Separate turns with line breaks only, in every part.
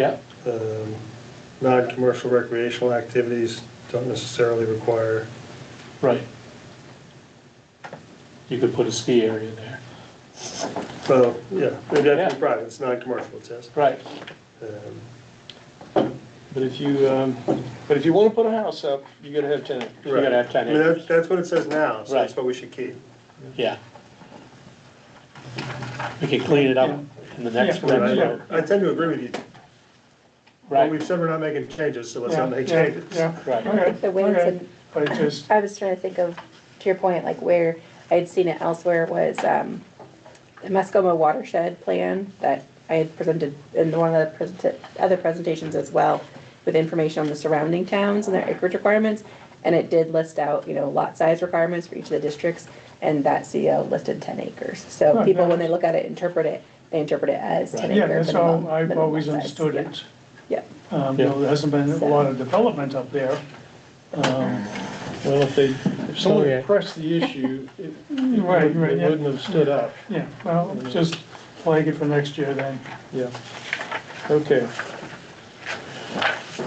Yeah.
Um, Non-commercial recreational activities don't necessarily require,
Right. You could put a ski area there.
well, yeah, it'd have to
Yeah.
be private, it's non-commercial, it says.
Right.
Um,
But if you, um, but if you wanna put a house up, you gotta have tenant.
You gotta have
I
ten
mean, that's,
acres.
that's what it says now, so that's
Right.
what we should keep.
Yeah. We could clean it up in the next
Yeah.
one,
I
so-
I tend to agree with you, but
right?
we've said we're not making changes, so let's
Yeah,
not make
yeah,
changes.
Yeah,
Right.
okay,
The way it's
okay.
in-
But it just,
I was trying to think of, to your point, like where I had seen it elsewhere was, um, the Muskoma watershed plan that I had presented in one of the present, other presentations as well, with information on the surrounding towns and their acreage requirements. And it did list out, you know, lot size requirements for each of the districts, and that CO listed ten acres. So
Right,
people,
yeah.
when they look at it, interpret it, they interpret it as ten
yeah,
acre
that's
minimum.
how I've
minimum
always
lot size.
understood
Yeah.
it.
Yeah,
Um, you know, there hasn't been a lot of development up there. Um,
Well, if they, if someone
Okay.
pressed the issue, it it
Right,
wouldn't
right,
it
yeah.
wouldn't have stood up.
yeah, well, just flag it for next year then.
Yeah. Okay.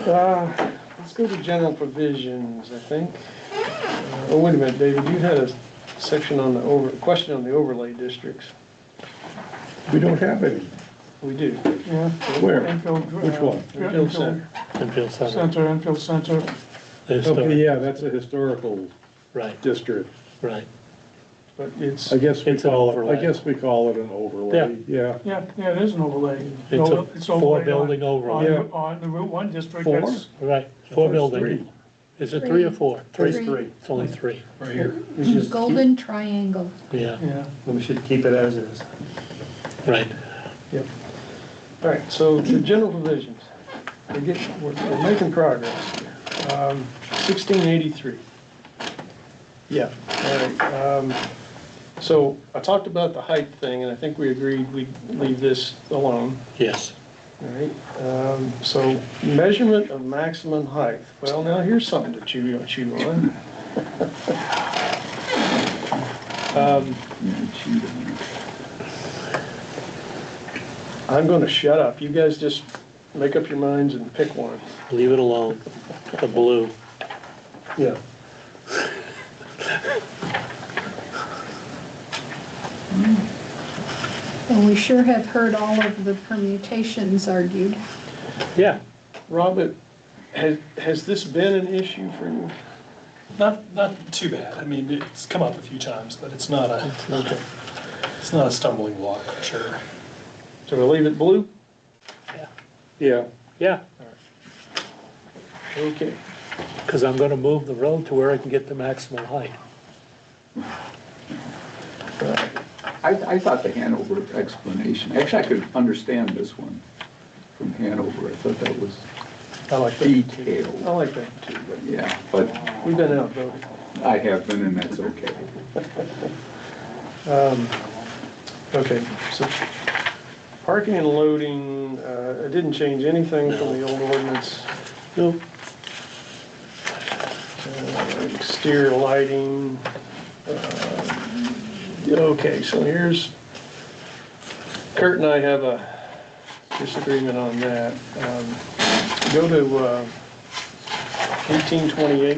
Uh, Let's go to general provisions, I think. Uh, Oh, wait a minute, David, you had a section on the over, question on the overlay districts.
We don't have any.
We do.
Yeah.
Where?
Enfield, uh,
Which one?
Enfield Center.
Enfield Center.
Center, Enfield Center,
There's
Oh,
the-
yeah, that's a historical
Right,
district.
right.
But it's,
I guess we
It's an
call, it.
overlay.
I guess we call it an overlay, yeah.
yeah, yeah, it is an overlay.
It's a
overlaid on-
four-building overlay.
on- On the Route One district,
Four?
that's,
Right, four
There's
buildings. Is it three or four?
There's
Three. It's only three,
Right here.
We should keep-
Golden triangle.
yeah,
yeah.
We should keep it as is.
right.
all right, so the general provisions, we're getting, we're we're making progress. here. Um, 1683. Yeah, all right. um, So I talked about the height thing, and I think we agreed we'd leave this alone.
Yes,
All right, um, so measurement of maximum height. Well, now here's something to chew, chew on. Um, I'm gonna shut up. You guys just make up your minds and pick one.
leave it alone, the blue.
Yeah.
Well, we sure have heard all of the permutations argued.
Yeah,
Robert, has, has this been an issue for you?
Not, not too bad. I mean, it's come up a few times, but it's not a,
okay,
it's not a stumbling block for sure.
So we'll leave it blue?
Yeah,
yeah,
Okay.
because I'm gonna move the road to where I can get the maximum height.
I, I thought the Hanover explanation, actually, I could understand this one from Hanover. I thought that was
I like that. I
detailed,
like that too.
but yeah, but
We've been outvoted.
I have been, and that's okay.
Um, Okay, so parking and loading, uh, it didn't change anything from the old ordinance.
No,
Uh, Exterior lighting. uh, Okay, so here's, Kurt and I have a disagreement on that. Um, Go to uh, 1828.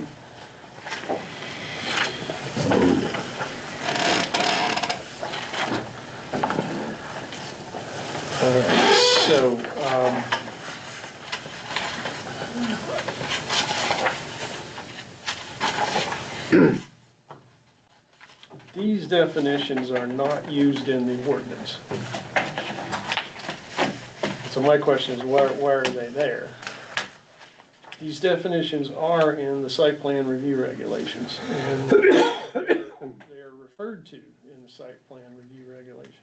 All right, so, um, these definitions are not used in the ordinance. So my question is, why, why are they there? These definitions are in the site plan review regulations, and they're referred to in the site plan review regulations.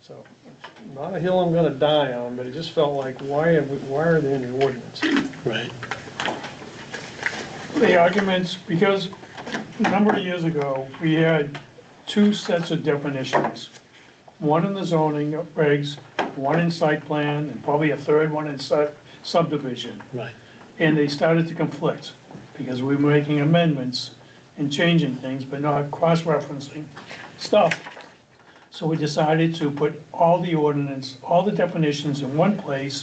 So, not a hill I'm gonna die on, but it just felt like, why, have we- why are they in the ordinance?
right,
The arguments, because a number of years ago, we had two sets of definitions. One in the zoning regs, one in site plan, and probably a third one in su- subdivision.
right,
And they started to conflict, because we were making amendments and changing things, but not cross-referencing stuff. So we decided to put all the ordinance, all the definitions in one place